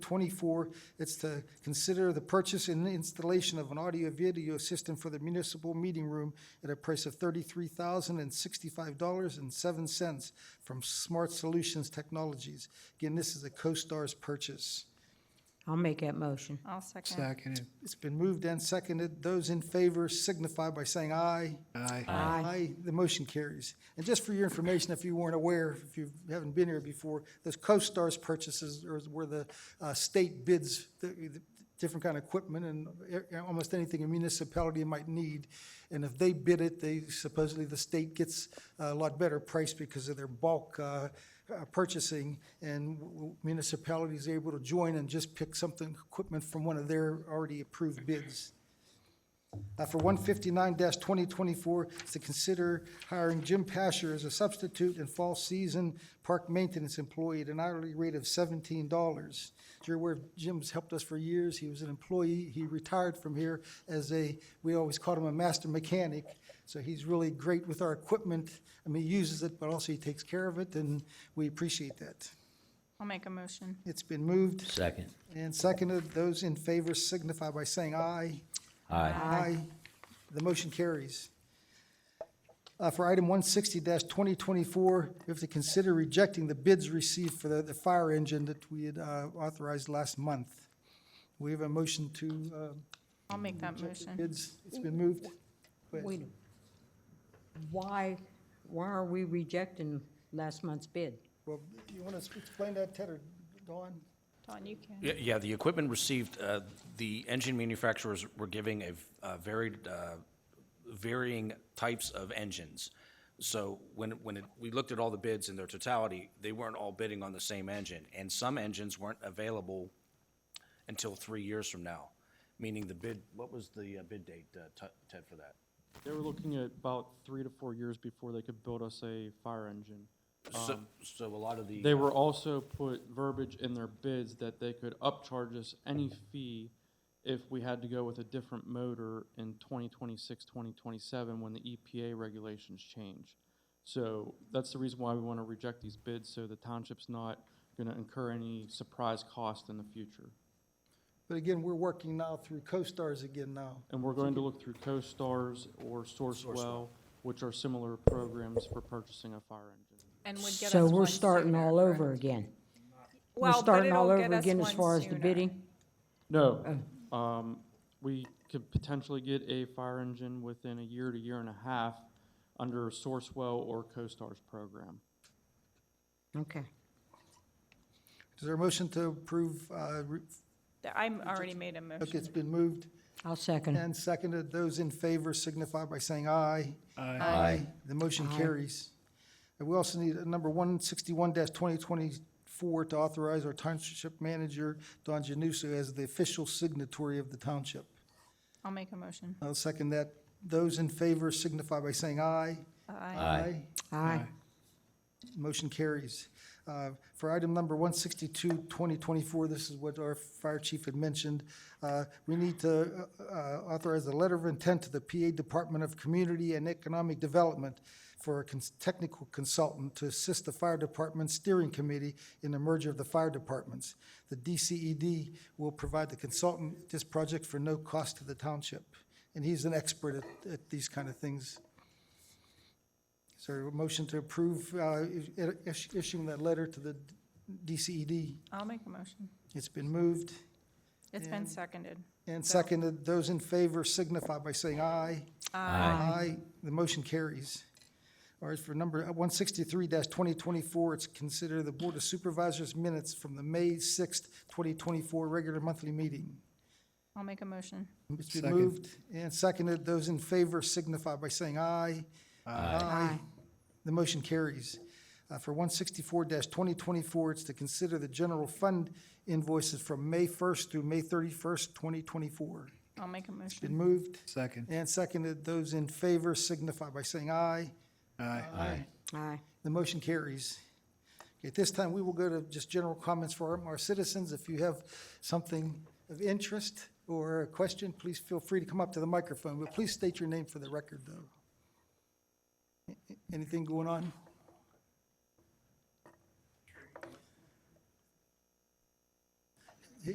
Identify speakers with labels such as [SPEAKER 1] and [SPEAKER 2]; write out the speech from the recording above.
[SPEAKER 1] twenty-four. It's to consider the purchase and installation of an audio-video system for the municipal meeting room at a price of thirty-three thousand and sixty-five dollars and seven cents from Smart Solutions Technologies. Again, this is a CoStar's purchase.
[SPEAKER 2] I'll make that motion.
[SPEAKER 3] I'll second.
[SPEAKER 4] Seconded.
[SPEAKER 1] It's been moved and seconded. Those in favor signify by saying aye.
[SPEAKER 4] Aye.
[SPEAKER 2] Aye.
[SPEAKER 1] The motion carries. And just for your information, if you weren't aware, if you haven't been here before, those co-stars purchases are- were the uh, state bids, the- the different kind of equipment and e- almost anything a municipality might need. And if they bid it, they supposedly, the state gets a lot better price because of their bulk uh, uh, purchasing. And w- w- municipalities are able to join and just pick something, equipment from one of their already approved bids. Uh, For 159-2024, it's to consider hiring Jim Pasher as a substitute and fall season park maintenance employee at an hourly rate of $17. You're aware Jim's helped us for years. He was an employee. He retired from here as a, we always called him a master mechanic. So he's really great with our equipment. I mean, he uses it, but also he takes care of it, and we appreciate that.
[SPEAKER 3] I'll make a motion.
[SPEAKER 1] It's been moved
[SPEAKER 5] Second.
[SPEAKER 1] and seconded. Those in favor signify by saying aye.
[SPEAKER 5] Aye.
[SPEAKER 1] Aye. The motion carries. Uh, For item 160-2024, we have to consider rejecting the bids received for the the fire engine that we had uh, authorized last month. We have a motion to uh,
[SPEAKER 3] I'll make that
[SPEAKER 1] reject the
[SPEAKER 3] motion.
[SPEAKER 1] bids. It's been moved. Go ahead.
[SPEAKER 2] Wait. a- Why, why are we rejecting last month's bid?
[SPEAKER 1] Well, you want to explain that, Ted or Dawn?
[SPEAKER 3] Dawn, you can.
[SPEAKER 6] Yeah, Yeah, the equipment received, uh, the engine manufacturers were giving a v- a varied, uh, varying types of engines. So when, when it- we looked at all the bids in their totality, they weren't all bidding on the same engine. And some engines weren't available until three years from now, meaning the bid, what was the uh, bid date, uh, Ted- Ted, for that?
[SPEAKER 7] They were looking at about three to four years before they could build us a fire engine.
[SPEAKER 6] So, Um, so a lot of the.
[SPEAKER 7] They were also put verbiage in their bids that they could upcharge us any fee if we had to go with a different motor in 2026, 2027, when the EPA regulations change. So that's the reason why we want to reject these bids, so the township's not going to incur any surprise cost in the future.
[SPEAKER 1] But again, we're working now through CoStars again now.
[SPEAKER 7] And we're going to look through CoStars or Sourcewell, which are similar programs for purchasing a fire engine.
[SPEAKER 3] And would get us
[SPEAKER 2] So we're
[SPEAKER 3] one
[SPEAKER 2] starting
[SPEAKER 3] sooner,
[SPEAKER 2] all over
[SPEAKER 3] correct?
[SPEAKER 2] again. We're
[SPEAKER 3] Well, but
[SPEAKER 2] starting all
[SPEAKER 3] it'll get
[SPEAKER 2] over
[SPEAKER 3] us
[SPEAKER 2] again as far
[SPEAKER 3] one
[SPEAKER 2] as the
[SPEAKER 3] sooner.
[SPEAKER 2] bidding?
[SPEAKER 7] No, um, we could potentially get a fire engine within a year to year and a half under Sourcewell or CoStar's program.
[SPEAKER 2] Okay.
[SPEAKER 1] Is there a motion to approve? uh, re-
[SPEAKER 3] Th- I'm already made a
[SPEAKER 1] Okay,
[SPEAKER 3] motion.
[SPEAKER 1] it's been moved
[SPEAKER 2] I'll second.
[SPEAKER 1] and seconded. Those in favor signify by saying aye.
[SPEAKER 5] Aye.
[SPEAKER 1] The motion carries. And we also need uh, number one sixty-one twenty twenty-four to authorize our township manager, Don Janusso, as the official signatory of the township.
[SPEAKER 3] I'll make a motion.
[SPEAKER 1] I'll second that. Those in favor signify by saying aye.
[SPEAKER 3] Aye.
[SPEAKER 5] Aye.
[SPEAKER 2] Aye.
[SPEAKER 1] Motion carries. Uh, For item number 162, 2024, this is what our fire chief had mentioned. Uh, We need to uh, uh, authorize a letter of intent to the PA Department of Community and Economic Development for a cons- technical consultant to assist the fire department steering committee in the merger of the fire departments. The DCED will provide the consultant this project for no cost to the township, and he's an expert at- at these kind of things. Is there a motion to approve uh, i- is- issuing that letter to the DCED?
[SPEAKER 3] I'll make a motion.
[SPEAKER 1] It's been moved
[SPEAKER 3] It's been seconded.
[SPEAKER 1] and seconded. Those in favor signify by saying aye. Aye. The motion carries. All right, for number 163-2024, it's consider the Board of Supervisors minutes from the May 6th, 2024 regular monthly meeting.
[SPEAKER 3] I'll make a motion.
[SPEAKER 1] It's been
[SPEAKER 4] Second.
[SPEAKER 1] moved and seconded. Those in favor signify by saying aye. Aye. The motion carries. Uh, For 164-2024, it's to consider the general fund invoices from May 1st through May 31st, 2024.
[SPEAKER 3] I'll make a
[SPEAKER 1] Been
[SPEAKER 3] motion.
[SPEAKER 1] moved
[SPEAKER 4] Second.
[SPEAKER 1] and seconded. Those in favor signify by saying aye.
[SPEAKER 4] Aye.
[SPEAKER 5] Aye.
[SPEAKER 2] Aye.
[SPEAKER 1] The motion carries. Okay, At this time, we will go to just general comments for our- our citizens. If you have something of interest or a question, please feel free to come up to the microphone, but please state your name for the record, though. A- Anything going on?